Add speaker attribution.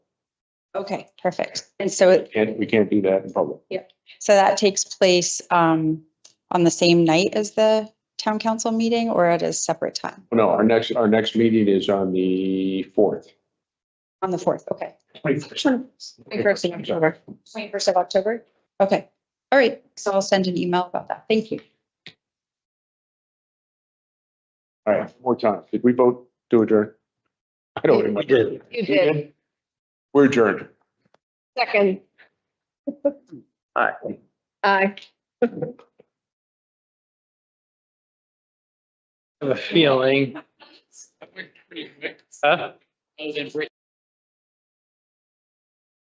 Speaker 1: Okay, perfect. And so it,
Speaker 2: And we can't do that in public.
Speaker 1: so that takes place um on the same night as the town council meeting or at a separate time?
Speaker 2: Oh, No, our next, our next meeting is on the fourth.
Speaker 1: On the fourth, okay. Twenty-first of
Speaker 2: Twenty-first.
Speaker 1: October. Twenty-first of October? Okay, all right. So I'll send an email about that. Thank you.
Speaker 2: All right, one more time. Did we vote to adjourn? I don't remember.
Speaker 3: You did.
Speaker 2: We're adjourned.
Speaker 3: Second.
Speaker 2: Aye.
Speaker 3: Aye.
Speaker 4: have a feeling. Huh?